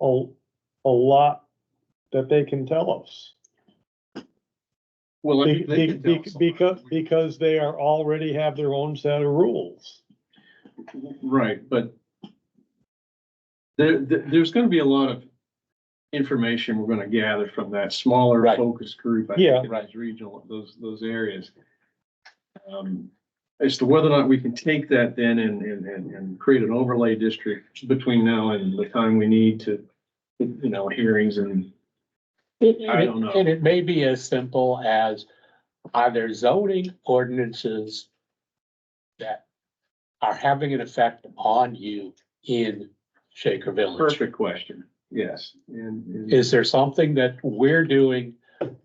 a, a lot that they can tell us. Well, I Be- mean, they be- can tell be- us. Because, because they are already have their own set of rules. Right, but there, there- there's gonna be a lot of information we're gonna gather from that smaller Right. focus group. I Yeah. think, in those Regional, those, those areas. Um, As to whether or not we can take that then and, and, and, and create an overlay district between now and the time we need to, you know, hearings and, It- I don't know. And it may be as simple as, are there zoning ordinances that are having an effect on you in Shaker Village? perfect question, yes. And, and- Is there something that we're doing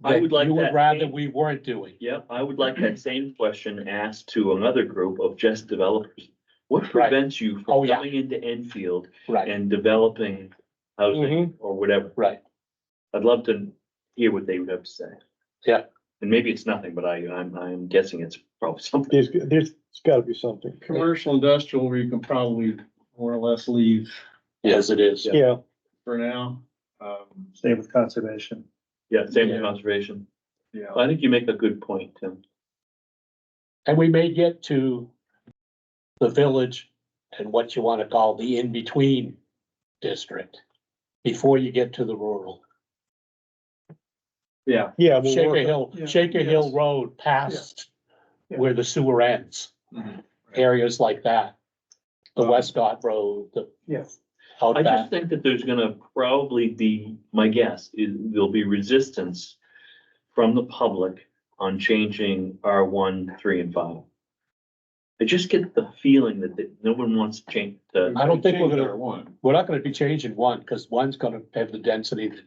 I that would like you would that. rather we weren't doing? Yep, I would like that same question asked to another group of just developers. What prevents you Oh, from yeah. coming into Enfield Right, and developing Mm-hmm. housing or whatever? right. I'd love to hear what they would have to say. Yeah. And maybe it's nothing, but I, I'm, I'm guessing it's probably something. There's, there's gotta be something. Commercial, industrial, where you can probably more or less leave Yes, it is. Yeah, for now. Um, Stay with conservation. Yeah, same with Yeah. conservation. yeah. I think you make a good point, Tim. And we may get to the village and what you want to call the in-between district before you get to the rural. Yeah, yeah. we'll Shaker work- Hill, Yeah, Shaker Hill yes. Road past Yeah. where the sewer ends, Mhm. areas like that. The Um, Westcott Road, the Yes. out I just back. think that there's gonna probably be, my guess is there'll be resistance from the public on changing R one, three and five. I just get the feeling that, that no one wants to change the, I don't think we're Change gonna- R1. We're not gonna be changing one, because one's gonna have the density that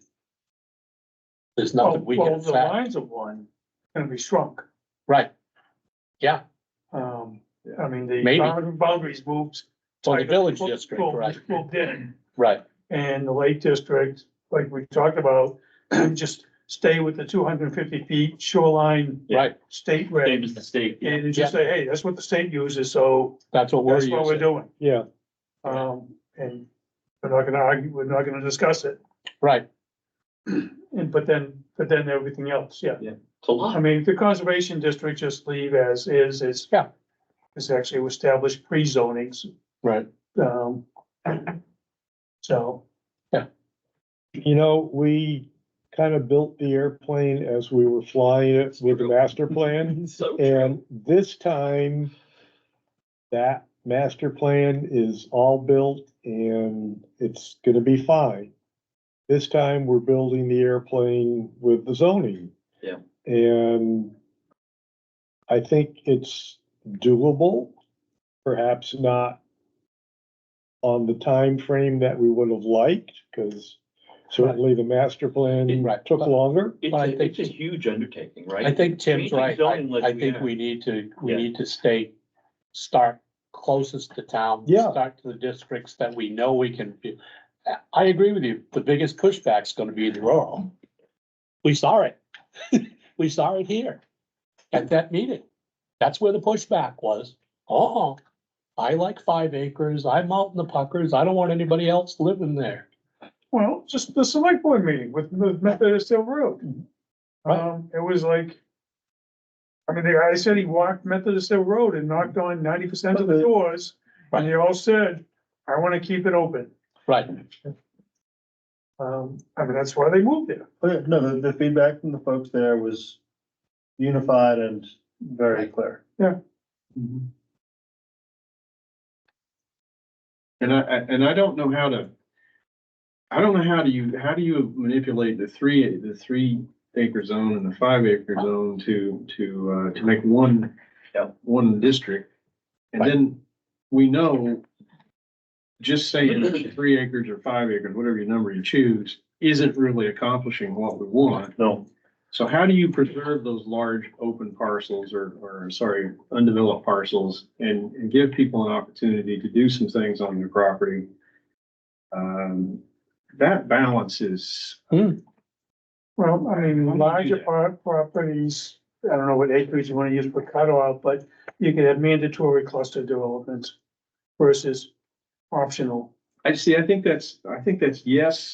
there's nothing we Oh, Well, can the affect. lines of one gonna be shrunk. Right. Yeah, Um, I mean, the Maybe. bound- boundaries moved. so the like, village moved- district, moved- right, Moved in, right, and the Lake District, like we talked about, just stay with the two hundred and fifty feet shoreline Yeah. right. state same reg. as the state. yeah. And just say, hey, that's what the state uses, so That's what we're that's what we're using, doing. Yeah, Um, and we're not gonna argue, we're not gonna discuss it. right, And but then, but then everything else, yeah. It's a I lot. mean, the conservation district just leave as is, it's. Yeah. It's actually established pre-zonings, right. um. So, you know, we kind of built the airplane as we were flying it with the master plan. So, And this time, that master plan is all built and it's gonna be fine. This time, we're building the airplane with the zoning. Yeah. And I think it's doable, perhaps not on the time frame that we would have liked, because certainly the master plan Right. took longer. it's I a, think- it's a huge undertaking, right? I think Tim's Changing right. zoning I, like I we think have. we need to, we Yeah. need to stay, start closest to town. Yeah. Start to the districts that we know we can do. I- I agree with you. The biggest pushback's gonna be the rural. We saw it. We saw it here at that meeting. That's where the pushback was. Oh, I like five acres. I'm out in the puckers. I don't want anybody else living there. well, just the select board meeting with with Methodist Hill Road. Mm-hmm. Right. Um, it was like. I mean, the guy said he walked Methodist Hill Road and knocked on ninety percent of the doors, and they all said, I wanna keep it open. Right, Um, I mean, that's why they moved there. Oh, yeah, No, the, the feedback from the folks there was unified and very clear. And I, I- and I don't know how to, I don't know how do you, how do you manipulate the three, the three acre zone and the five acre zone to, to, uh, to make one, Yeah. one district? And then we know, just saying three acres or five acres, whatever your number you choose, isn't really accomplishing what we want. No, So how do you preserve those large open parcels or, or sorry, undeveloped parcels and, and give people an opportunity to do some things on their property? Um, that balance is, Well, I mean, Why don't you do larger that? par- properties, I don't know what acreage you wanna use for cutoff, but you could have mandatory cluster development versus optional. I see, I think that's, I think that's yes,